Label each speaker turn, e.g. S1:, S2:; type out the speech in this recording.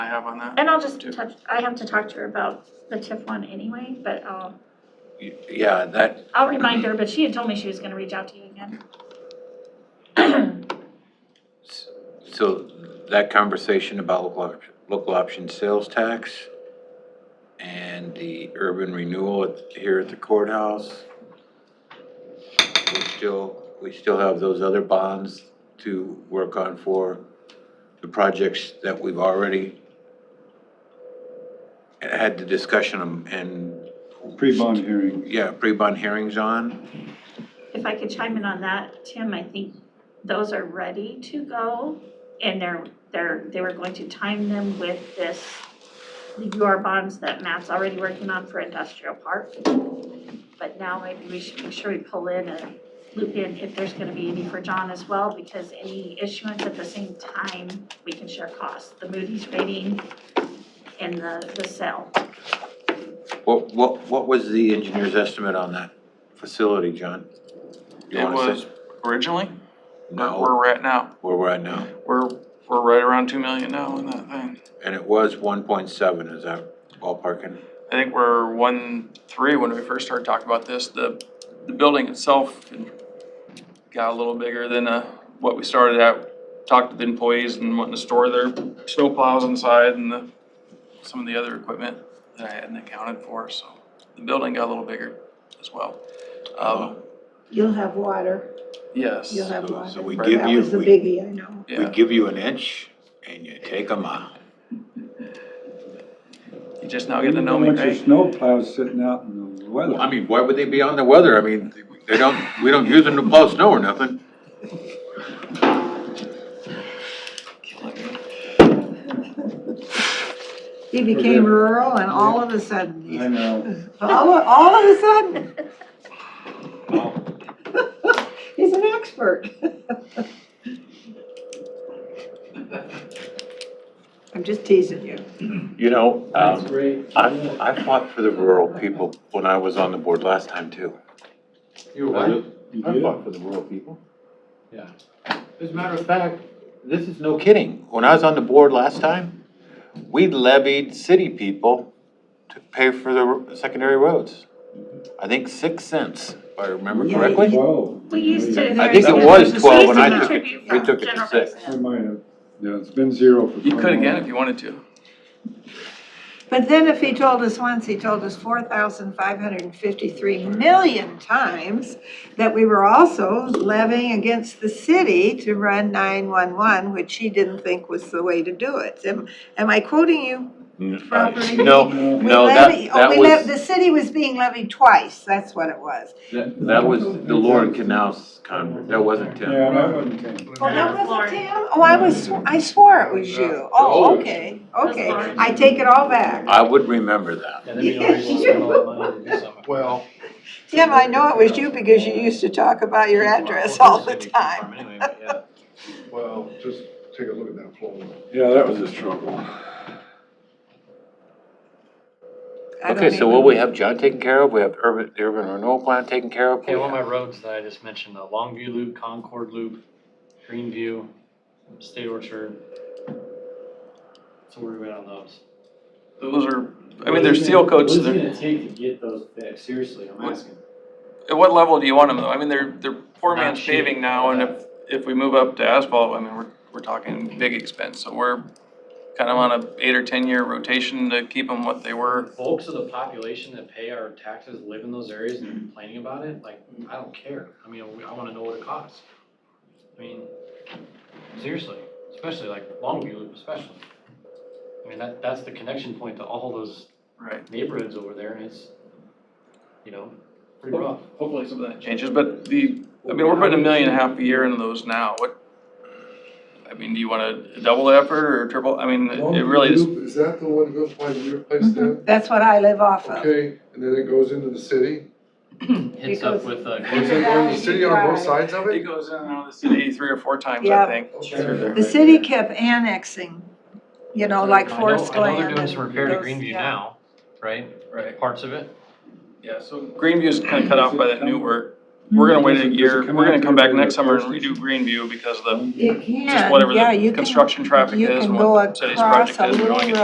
S1: I have on that.
S2: And I'll just
S1: Too.
S2: touch, I have to talk to her about the TIF one anyway, but I'll,
S3: Yeah, that,
S2: I'll remind her, but she had told me she was gonna reach out to you again.
S3: so that conversation about local, op- local option sales tax and the urban renewal at- here at the courthouse. We still, we still have those other bonds to work on for the projects that we've already had the discussion on and,
S4: Pre-bond hearing,
S3: yeah, pre-bond hearings on.
S2: If I could chime in on that, Tim, I think those are ready to go. And they're, they're, they were going to time them with this, the UR bonds that Matt's already working on for industrial park. But now maybe we should make sure we pull in and loop in if there's gonna be any for John as well, because any issuance at the same time, we can share costs, the Moody's rating and the, the sale.
S3: What, what, what was the engineer's estimate on that facility, John? You
S1: It
S3: wanna
S1: was
S3: say?
S1: originally, but where
S3: No,
S1: we're at now,
S3: where we're at now,
S1: we're, we're right around two million now in that thing.
S3: and it was one point seven, is that ballparking?
S1: I think we're one, three, when we first started talking about this, the, the building itself got a little bigger than, uh, what we started at. Talked to the employees and wanting to store their snowplows inside and the, some of the other equipment that I hadn't accounted for, so. The building got a little bigger as well. Um,
S5: You'll have water,
S1: yes,
S5: you'll have
S3: So-
S5: water.
S3: so we
S1: give
S5: That
S3: you-
S5: was the
S3: we-
S5: biggie, I know.
S3: We
S1: yeah,
S3: give you an inch and you take a mile.
S1: you just now
S4: you
S1: getting to know
S4: know
S1: me,
S4: how much your
S1: right?
S4: snowplow's sitting out in the
S3: Well, I
S4: weather.
S3: mean, why would they be on the weather? I mean, they don't, we don't use them to plow snow or nothing.
S5: He became rural and all of a sudden,
S4: I
S5: he's-
S4: know,
S5: all, of- all of a sudden. He's an expert. I'm just teasing you.
S3: You know, um, I, I fought for the rural people when I was on the board last time too.
S6: You were right.
S4: you
S3: I
S4: did.
S3: fought for the rural people.
S6: As a matter of fact,
S3: This is no kidding. When I was on the board last time, we levied city people to pay for the r- secondary roads. I think six cents, if I remember
S5: Yeah,
S3: correctly.
S4: Twelve.
S2: We used to.
S3: I think it
S2: there's-
S3: was
S2: we
S3: 12
S2: used
S3: when
S2: to
S3: I took it.
S2: contribute
S3: We
S2: from
S3: took it to
S2: general
S3: six.
S2: fund.
S4: I might have, yeah, it's been zero for.
S1: You could
S4: so
S1: again
S4: long.
S1: if you wanted to.
S5: But then if he told us once, he told us four thousand five hundred and fifty-three million times that we were also levying against the city to run nine-one-one, which he didn't think was the way to do it. Am, am I quoting you? Property.
S3: uh, No,
S5: We
S3: no, that,
S5: levy- oh,
S3: that
S5: we lev-
S3: was,
S5: The city was being levied twice, that's what it was.
S3: that was the Lauren Canals conference. That wasn't Tim.
S4: Yeah, that wasn't ten.
S5: Well, that
S2: That's
S5: wasn't
S2: Lauren.
S5: Tim? Oh, I was, sw- I swore it was you. Oh, okay,
S2: was
S5: okay.
S2: Lauren.
S5: I take it all back.
S3: I would remember that.
S6: and then you know you want to spend all that money to do something.
S7: Well,
S5: Tim, I know it was you because you used to talk about your address all the time.
S7: well, just take a look at that floor.
S4: Yeah, that was a struggle.
S5: I don't
S3: Okay, so
S5: even-
S3: what we have John taken care of, we have urban, the urban renewal plan taken care of.
S6: Okay, well, my roads that I just mentioned, the Longview Loop, Concord Loop, Greenview, State Orchard. So where are we at on those?
S1: Those are, I mean, they're seal coats,
S8: What is
S1: they're.
S8: it gonna take to get those fixed? Seriously, I'm
S1: What-
S8: asking.
S1: At what level do you want them though? I mean, they're, they're poor
S6: Not
S1: man's
S6: cheap.
S1: paving now and if, if we move up to asphalt, I mean, we're, we're talking big expense. So we're kind of on a eight or ten year rotation to keep them what they
S8: Are
S1: were.
S8: Folks of the population that pay our taxes live in those areas and complaining about it, like, I don't care. I mean, we- I wanna know what it costs. I mean, seriously, especially like Longview Loop especially. I mean, that, that's the connection point to all those
S1: Right.
S8: neighborhoods over there and it's, you know, pretty rough.
S1: Hopefully some of that changes, but the, I mean, we're putting a million and a half a year into those now. What? I mean, do you want to double the effort or triple? I mean, it really is.
S7: Is that the one that goes by your place there?
S5: Mhm. That's what I live off of.
S7: Okay, and then it goes into the city?
S8: Hits up with, uh,
S7: Is it going to the city on both sides of
S1: It
S7: it?
S1: goes in and out of the city three or four times, I
S5: Yeah.
S1: think.
S7: Okay.
S5: The city kept annexing, you know, like Forest
S8: I know, I know
S5: Glen.
S8: they're doing some
S5: and
S8: repair to
S5: those-
S8: Greenview
S5: yeah.
S8: now, right?
S1: Right.
S8: Parts of it.
S1: Yeah, so Greenview's kind of cut off by that new work. We're gonna wait
S4: Does
S1: a
S4: it- does it
S1: year,
S4: come
S1: we're gonna
S4: out
S1: come
S4: there
S1: back
S4: for
S1: next
S4: the
S1: summer and
S4: first?
S1: redo Greenview because of the
S5: It can,
S1: just whatever
S5: yeah, you
S1: the
S5: can-
S1: construction traffic
S5: you
S1: is,
S5: can
S1: and
S5: go
S1: what the city's
S5: across
S1: project
S5: a
S1: is, we
S5: little
S1: wanna get